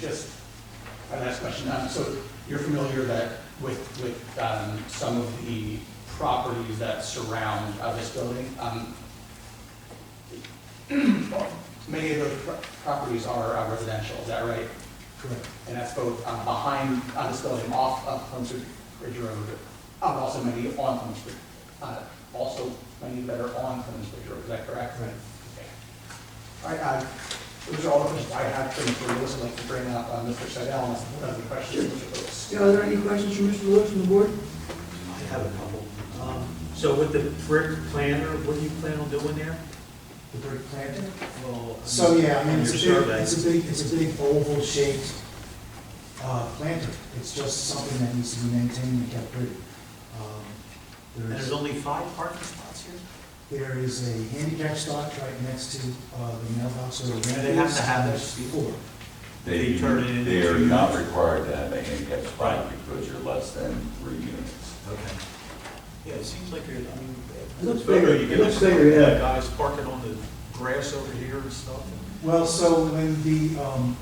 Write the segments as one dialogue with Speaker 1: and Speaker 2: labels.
Speaker 1: just my last question, um, so you're familiar that with, with, um, some of the properties that surround uh, this building? Um, Many of those pro- properties are uh, residential, is that right?
Speaker 2: Correct.
Speaker 1: And that's both uh, behind, on this building, off of Plumstead Ridge Road, uh, also many on Plumstead, uh, also many that are on Plumstead Ridge Road, is that correct?
Speaker 2: Right.
Speaker 1: All right, uh, those are all the questions I have for you, for you, I'd like to bring up uh, Mr. Seidel, unless there are any questions, Mr. Lewis.
Speaker 3: Yeah, Are there any questions from Mr. Lewis and the board?
Speaker 4: I have a couple. Um, So with the brick planter, what do you plan on doing there?
Speaker 2: The brick planter?
Speaker 4: Well,
Speaker 2: So, yeah, I mean, it's a
Speaker 4: Your
Speaker 2: big,
Speaker 4: survey.
Speaker 2: it's a big, it's a big oval shaped, uh, planter. It's just something that needs to be maintained and kept pretty. Um,
Speaker 4: And
Speaker 2: There's,
Speaker 4: there's only five parking spots here?
Speaker 2: there is a handicap spot right next to, uh, the mailbox or the.
Speaker 4: And they have to have
Speaker 2: ramp
Speaker 4: this
Speaker 2: is.
Speaker 4: before.
Speaker 5: They,
Speaker 4: They turn it
Speaker 5: they are
Speaker 4: into-
Speaker 5: not required to have a handicap spot because you're less than three units.
Speaker 4: Okay. Yeah, it seems like you're, I mean.
Speaker 3: It looks
Speaker 4: it's better
Speaker 3: bigger.
Speaker 4: you
Speaker 3: It
Speaker 4: get
Speaker 3: looks bigger, yeah.
Speaker 4: Guys parking on the grass over here and stuff.
Speaker 2: Well, so when the, um,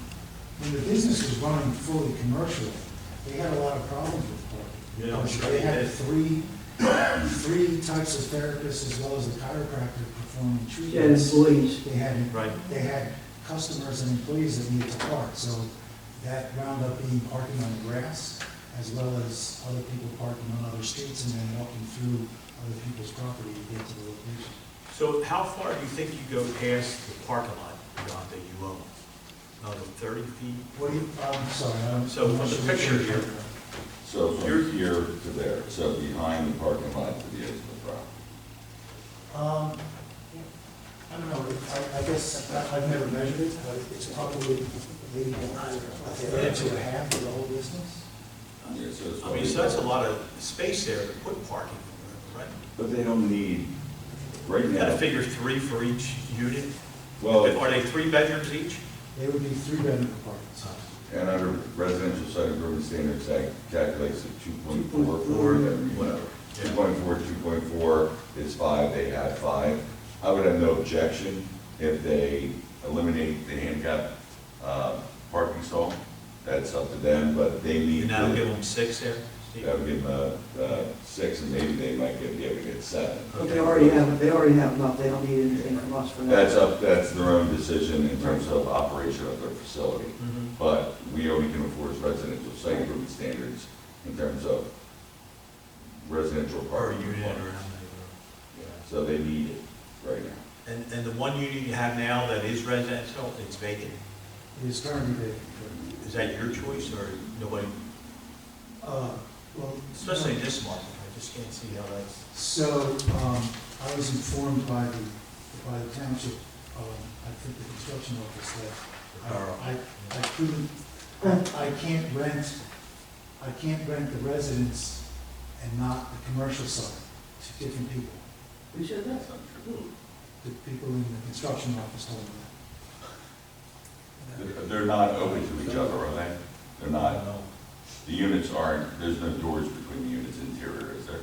Speaker 2: when the business was running fully commercial, they had a lot of problems with parking.
Speaker 4: Yeah, I'm sure
Speaker 2: They
Speaker 4: they
Speaker 2: had
Speaker 4: did.
Speaker 2: three, three types of therapists as well as a chiropractor performing
Speaker 3: And
Speaker 2: treatments.
Speaker 3: please.
Speaker 2: They had,
Speaker 4: Right.
Speaker 2: they had customers and employees that needed to park, so that wound up being parking on the grass as well as other people parking on other streets and then walking through other people's property to get to the location.
Speaker 4: So how far do you think you go past the parking lot, John, that you own? Another thirty feet?
Speaker 2: What do you, I'm sorry, I'm.
Speaker 4: So from the picture here-
Speaker 5: So from here to there, so behind the parking lot to the edge of the property.
Speaker 2: Um, I don't know, I, I guess, I- I've never measured it, but it's probably maybe a third to a half of the whole distance.
Speaker 5: Yeah, so it's
Speaker 4: I mean,
Speaker 5: probably-
Speaker 4: so that's a lot of space there to put parking, right?
Speaker 5: But they don't need, right
Speaker 4: You gotta
Speaker 5: now,
Speaker 4: figure three for each unit.
Speaker 5: well,
Speaker 4: Are they three bedrooms each?
Speaker 2: They would be three bedroom apartments.
Speaker 5: and under residential site improvement standards, that calculates at two point four four, whatever. Two point four, two point four is five, they had five. I would have no objection if they eliminate the handicap, uh, parking stall. That's up to them, but they need.
Speaker 4: And that'll
Speaker 5: to-
Speaker 4: give them six there? Steve?
Speaker 5: That would give them a, uh, six, and maybe they might get, be able to get seven.
Speaker 3: But they already have, they already have enough, they don't need anything from us for that.
Speaker 5: That's up, that's their own decision in terms of operation of their facility.
Speaker 4: Mhm.
Speaker 5: But we only can enforce residential site improvement standards in terms of residential
Speaker 4: Or a
Speaker 5: parking.
Speaker 4: unit or.
Speaker 5: requirements. So they need it right now.
Speaker 4: And, and the one unit you have now that is residential, it's vacant?
Speaker 2: It is currently vacant.
Speaker 4: Is that your choice or nobody,
Speaker 2: Uh, well.
Speaker 4: especially in this market? I just can't see how that's.
Speaker 2: So, um, I was informed by the, by the township, um, I think the construction office, that I, I- I couldn't, I can't rent, I can't rent the residence and not the commercial side to different people.
Speaker 3: Who said that?
Speaker 2: The people in the construction office told me
Speaker 5: They're- They're not open to each other, are they? They're not,
Speaker 4: know.
Speaker 5: the units aren't, there's no doors between the units interior, is there?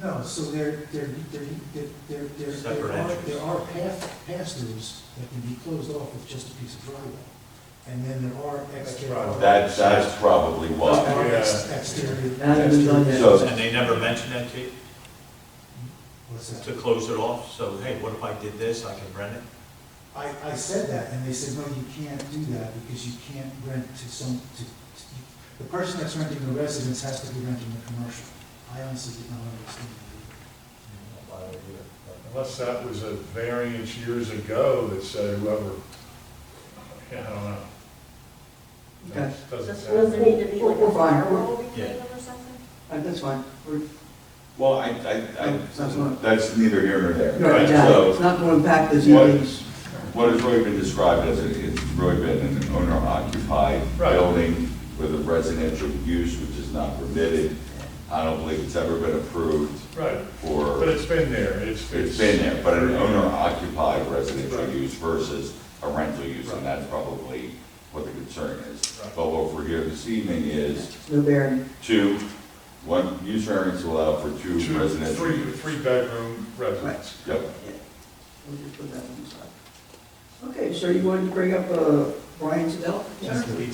Speaker 2: that. No, so there, there, there, there, there, there- there
Speaker 4: Separate
Speaker 2: are,
Speaker 4: entrances.
Speaker 2: there are path, pass-throughs that can be closed off with just a piece of drywall. And then there are exterior.
Speaker 5: That, that's probably
Speaker 2: There
Speaker 5: why.
Speaker 2: are ex- Exterior.
Speaker 3: Hasn't been done yet.
Speaker 5: So-
Speaker 4: And they never mentioned that to you,
Speaker 2: What's that?
Speaker 4: to close it off? So, hey, what if I did this? I can rent it?
Speaker 2: I, I said that, and they said, no, you can't do that, because you can't rent to some, to, to- the person that's renting the residence has to be renting the commercial. I honestly did not understand that.
Speaker 6: Unless that was a variance years ago that said whoever, yeah, I don't know.
Speaker 3: Okay.
Speaker 6: That Doesn't
Speaker 7: Does it
Speaker 6: sound.
Speaker 7: need to be
Speaker 3: We're-
Speaker 7: like
Speaker 3: we're
Speaker 7: a
Speaker 3: fine.
Speaker 7: firewall between
Speaker 4: Yeah.
Speaker 7: them or something?
Speaker 3: Uh, That's fine, we're,
Speaker 5: Well, I, I,
Speaker 3: That's
Speaker 5: I,
Speaker 3: not-
Speaker 5: that's neither here nor there.
Speaker 3: you're right, yeah,
Speaker 5: So-
Speaker 3: it's not gonna impact the
Speaker 5: What-
Speaker 3: ZBA's.
Speaker 5: What has really been described as, a- it's really been an owner-occupied
Speaker 6: Right.
Speaker 5: building with a residential use which is not permitted. I don't believe it's ever been approved
Speaker 6: Right, but
Speaker 5: for,
Speaker 6: it's been there, it's.
Speaker 5: it's been there, but an owner-occupied residential
Speaker 6: Right.
Speaker 5: use versus a rental use,
Speaker 6: Right.
Speaker 5: and that's probably what the concern is.
Speaker 6: Right.
Speaker 5: But what we're here this evening is
Speaker 3: No bearing.
Speaker 5: two, one use variance will allow for two
Speaker 6: Two,
Speaker 5: residential
Speaker 6: three,
Speaker 5: use.
Speaker 6: three bedroom residence.
Speaker 5: Yep.
Speaker 3: We'll just put that one aside. Okay, sir, you wanted to bring up, uh,
Speaker 8: Brian Sedell?
Speaker 3: That's the-